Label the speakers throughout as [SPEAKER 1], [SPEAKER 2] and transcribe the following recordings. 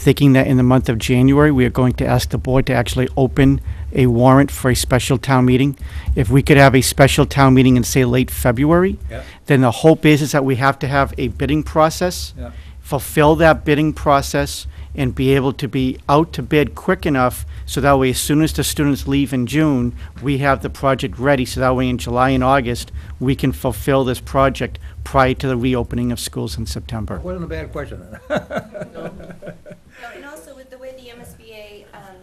[SPEAKER 1] thinking that in the month of January, we are going to ask the board to actually open a warrant for a special town meeting. If we could have a special town meeting in, say, late February,
[SPEAKER 2] Yep.
[SPEAKER 1] then the hope is, is that we have to have a bidding process,
[SPEAKER 2] Yep.
[SPEAKER 1] fulfill that bidding process, and be able to be out to bid quick enough, so that way, as soon as the students leave in June, we have the project ready, so that way in July and August, we can fulfill this project prior to the reopening of schools in September.
[SPEAKER 2] Wasn't a bad question.
[SPEAKER 3] No, and also with the way the MSBA um,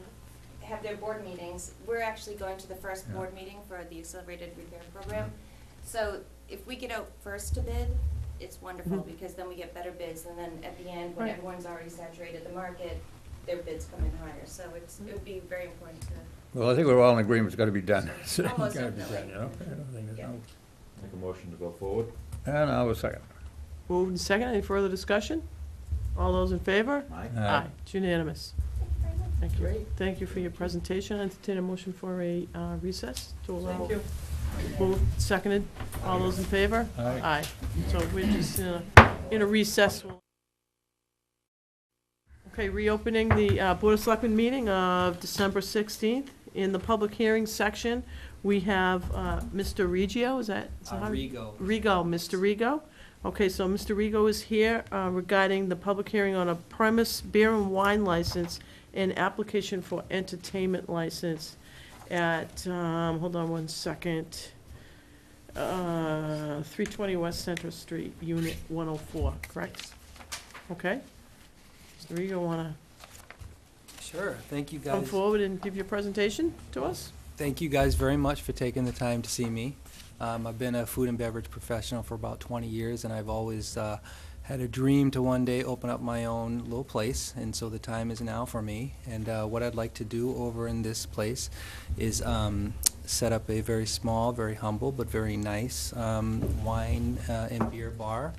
[SPEAKER 3] have their board meetings, we're actually going to the first
[SPEAKER 2] Yeah.
[SPEAKER 3] board meeting for the accelerated repair program. So if we get out first to bid, it's wonderful, because then we get better bids, and then at the end, when
[SPEAKER 4] Mm-hmm. Right.
[SPEAKER 3] everyone's already saturated the market, their bids come in higher, so it's, it would be very important to,
[SPEAKER 2] Well, I think we're all in agreement, it's gotta be done. It's
[SPEAKER 3] Almost
[SPEAKER 2] gotta be done, you know? I don't think there's
[SPEAKER 3] Yeah.
[SPEAKER 2] no-
[SPEAKER 5] Make a motion to go forward?
[SPEAKER 2] And I'll second.
[SPEAKER 4] Moved and second, any further discussion? All those in favor?
[SPEAKER 5] Aye.
[SPEAKER 2] Aye.
[SPEAKER 4] It's unanimous. Thank you.
[SPEAKER 5] Great.
[SPEAKER 4] Thank you for your presentation. I entertain a motion for a uh, recess to allow. Thank you. Moved, seconded, all those in favor?
[SPEAKER 2] Aye.
[SPEAKER 4] Aye. So we're just in a, in a recess. Okay, reopening the uh, Board of Selectmen meeting of December 16th. In the public hearing section, we have uh, Mr. Regio, is that? is that how-
[SPEAKER 6] Rigo.
[SPEAKER 4] Rego, Mr. Rego. Okay, so Mr. Rego is here uh, regarding the public hearing on a premise beer and wine license and application for entertainment license at, um, hold on one second, uh, 320 West Center Street, Unit 104, correct? Okay. Mr. Rego, want
[SPEAKER 6] Sure, thank you
[SPEAKER 4] to come
[SPEAKER 6] guys.
[SPEAKER 4] forward and give your presentation to us?
[SPEAKER 6] Thank you guys very much for taking the time to see me. Um, I've been a food and beverage professional for about 20 years, and I've always uh, had a dream to one day open up my own little place, and so the time is now for me. And uh, what I'd like to do over in this place is um, set up a very small, very humble, but very nice um, wine uh, and beer bar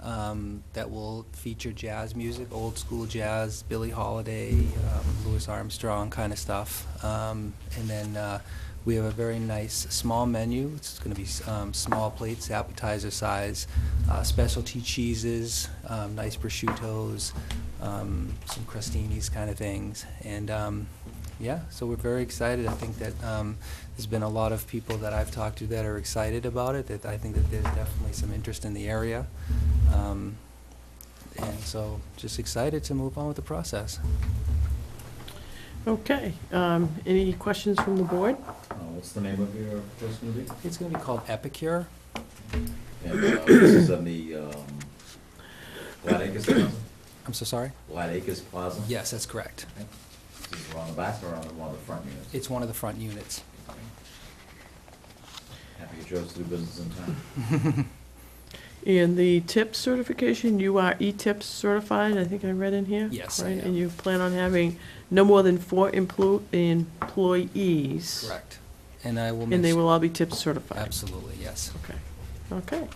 [SPEAKER 6] um, that will feature jazz music, old school jazz, Billie Holiday, um, Louis Armstrong kind of stuff. Um, and then uh, we have a very nice small menu. It's going to be um, small plates, appetizer size, uh, specialty cheeses, um, nice prosciuttos, um, some crostinis kind of things. And um, yeah, so we're very excited. I think that um, there's been a lot of people that I've talked to that are excited about it, that I think that there's definitely some interest in the area. Um, And so just excited to move on with the process.
[SPEAKER 4] Okay, um, any questions from the board?
[SPEAKER 5] Uh, What's the name of your place gonna be?
[SPEAKER 6] It's going to be called Epicure.
[SPEAKER 5] And uh, this is on the um, Glad Acres Plaza?
[SPEAKER 6] I'm so sorry?
[SPEAKER 5] Glad Acres Plaza?
[SPEAKER 6] Yes, that's correct.
[SPEAKER 5] Okay. This is on the back or on the- one of the front units?
[SPEAKER 6] It's one of the front units.
[SPEAKER 5] Happy to chose to do business in town.
[SPEAKER 4] And the tip certification, you are E E-TIP certified, I think I read in here?
[SPEAKER 6] Yes, I
[SPEAKER 4] Right,
[SPEAKER 6] am.
[SPEAKER 4] and you plan on having no more than four emplo- employees?
[SPEAKER 6] Correct. And I will make...
[SPEAKER 4] And they
[SPEAKER 6] su-
[SPEAKER 4] will all be tip certified?
[SPEAKER 6] Absolutely, yes.
[SPEAKER 4] Okay, okay.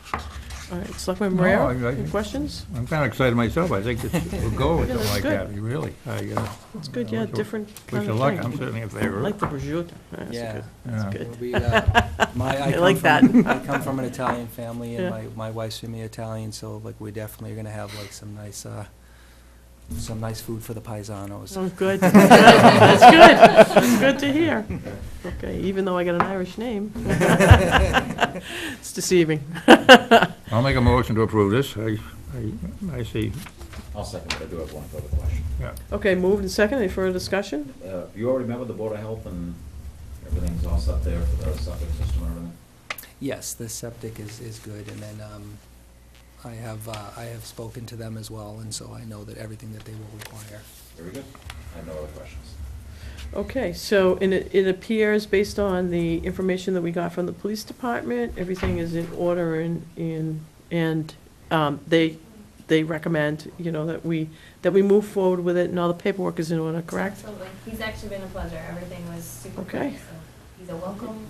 [SPEAKER 4] All right, Selectman
[SPEAKER 2] No,
[SPEAKER 4] Marrero,
[SPEAKER 2] I- I-
[SPEAKER 4] any questions?
[SPEAKER 2] I'm kinda excited myself, I think this will go with
[SPEAKER 4] Yeah,
[SPEAKER 2] something
[SPEAKER 4] that's
[SPEAKER 2] like
[SPEAKER 4] good.
[SPEAKER 2] that, really. It's
[SPEAKER 4] It's good, yeah, different
[SPEAKER 2] Wish
[SPEAKER 4] kind
[SPEAKER 2] you
[SPEAKER 4] of
[SPEAKER 2] luck, I'm
[SPEAKER 4] thing.
[SPEAKER 2] certainly in
[SPEAKER 4] I
[SPEAKER 2] favor.
[SPEAKER 4] Like the prosciutto, that's
[SPEAKER 6] Yeah.
[SPEAKER 4] good,
[SPEAKER 2] Yeah.
[SPEAKER 4] that's
[SPEAKER 6] Well,
[SPEAKER 4] good.
[SPEAKER 6] we, uh, my-
[SPEAKER 4] I
[SPEAKER 6] come
[SPEAKER 4] like
[SPEAKER 6] from-
[SPEAKER 4] that.
[SPEAKER 6] I come from an Italian family,
[SPEAKER 4] Yeah.
[SPEAKER 6] and my, my wife's from the Italian, so like, we definitely are gonna have like some nice, uh, some nice food for the paisanos.
[SPEAKER 4] Oh, good, that's good, that's good, that's good to hear. Okay, even though I got an Irish name. It's deceiving.
[SPEAKER 2] I'll make a motion to approve this, I, I, I see,
[SPEAKER 5] I'll second, but I do have one further question.
[SPEAKER 2] yeah.
[SPEAKER 4] Okay, moved and second, any further discussion?
[SPEAKER 5] Uh, You all remember the Board of Health and everything's all set there for the septic system and everything?
[SPEAKER 6] Yes, the septic is, is good, and then, um, I have, uh, I have spoken to them as well, and so I know that everything that they will require.
[SPEAKER 5] Very good. I have no other questions.
[SPEAKER 4] Okay, so and it, it appears, based on the information that we got from the police department, everything is in order and, and, and, um, they, they recommend, you know, that we, that we move forward with it and all the paperwork is in order, correct?
[SPEAKER 3] absolutely. He's actually been a pleasure, everything was super
[SPEAKER 4] Okay.
[SPEAKER 3] quick, so he's a welcome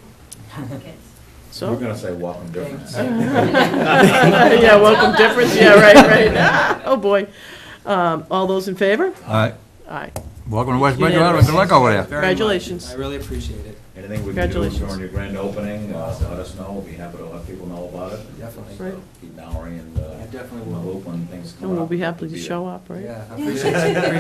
[SPEAKER 3] applicant.
[SPEAKER 5] We're
[SPEAKER 4] So,
[SPEAKER 5] gonna say welcome difference.
[SPEAKER 4] yeah, welcome difference, yeah, right, right, Ah, oh boy. Um, all those in favor?
[SPEAKER 2] All right,
[SPEAKER 4] Aye.
[SPEAKER 2] welcome to West Bridgewater, and good luck over there.
[SPEAKER 6] Very much.
[SPEAKER 4] Congratulations.
[SPEAKER 6] I really appreciate it,
[SPEAKER 5] Anything we can do
[SPEAKER 4] Congratulations.
[SPEAKER 5] during your grand opening, uh, let us know, we'll be happy to let people know about it.
[SPEAKER 6] definitely.
[SPEAKER 4] Right.
[SPEAKER 5] Keep Mallory and, uh,
[SPEAKER 6] I definitely
[SPEAKER 5] in the
[SPEAKER 6] will.
[SPEAKER 5] loop when things come up.
[SPEAKER 4] And we'll be happy to show up, right?
[SPEAKER 6] Yeah, I appreciate, I appreciate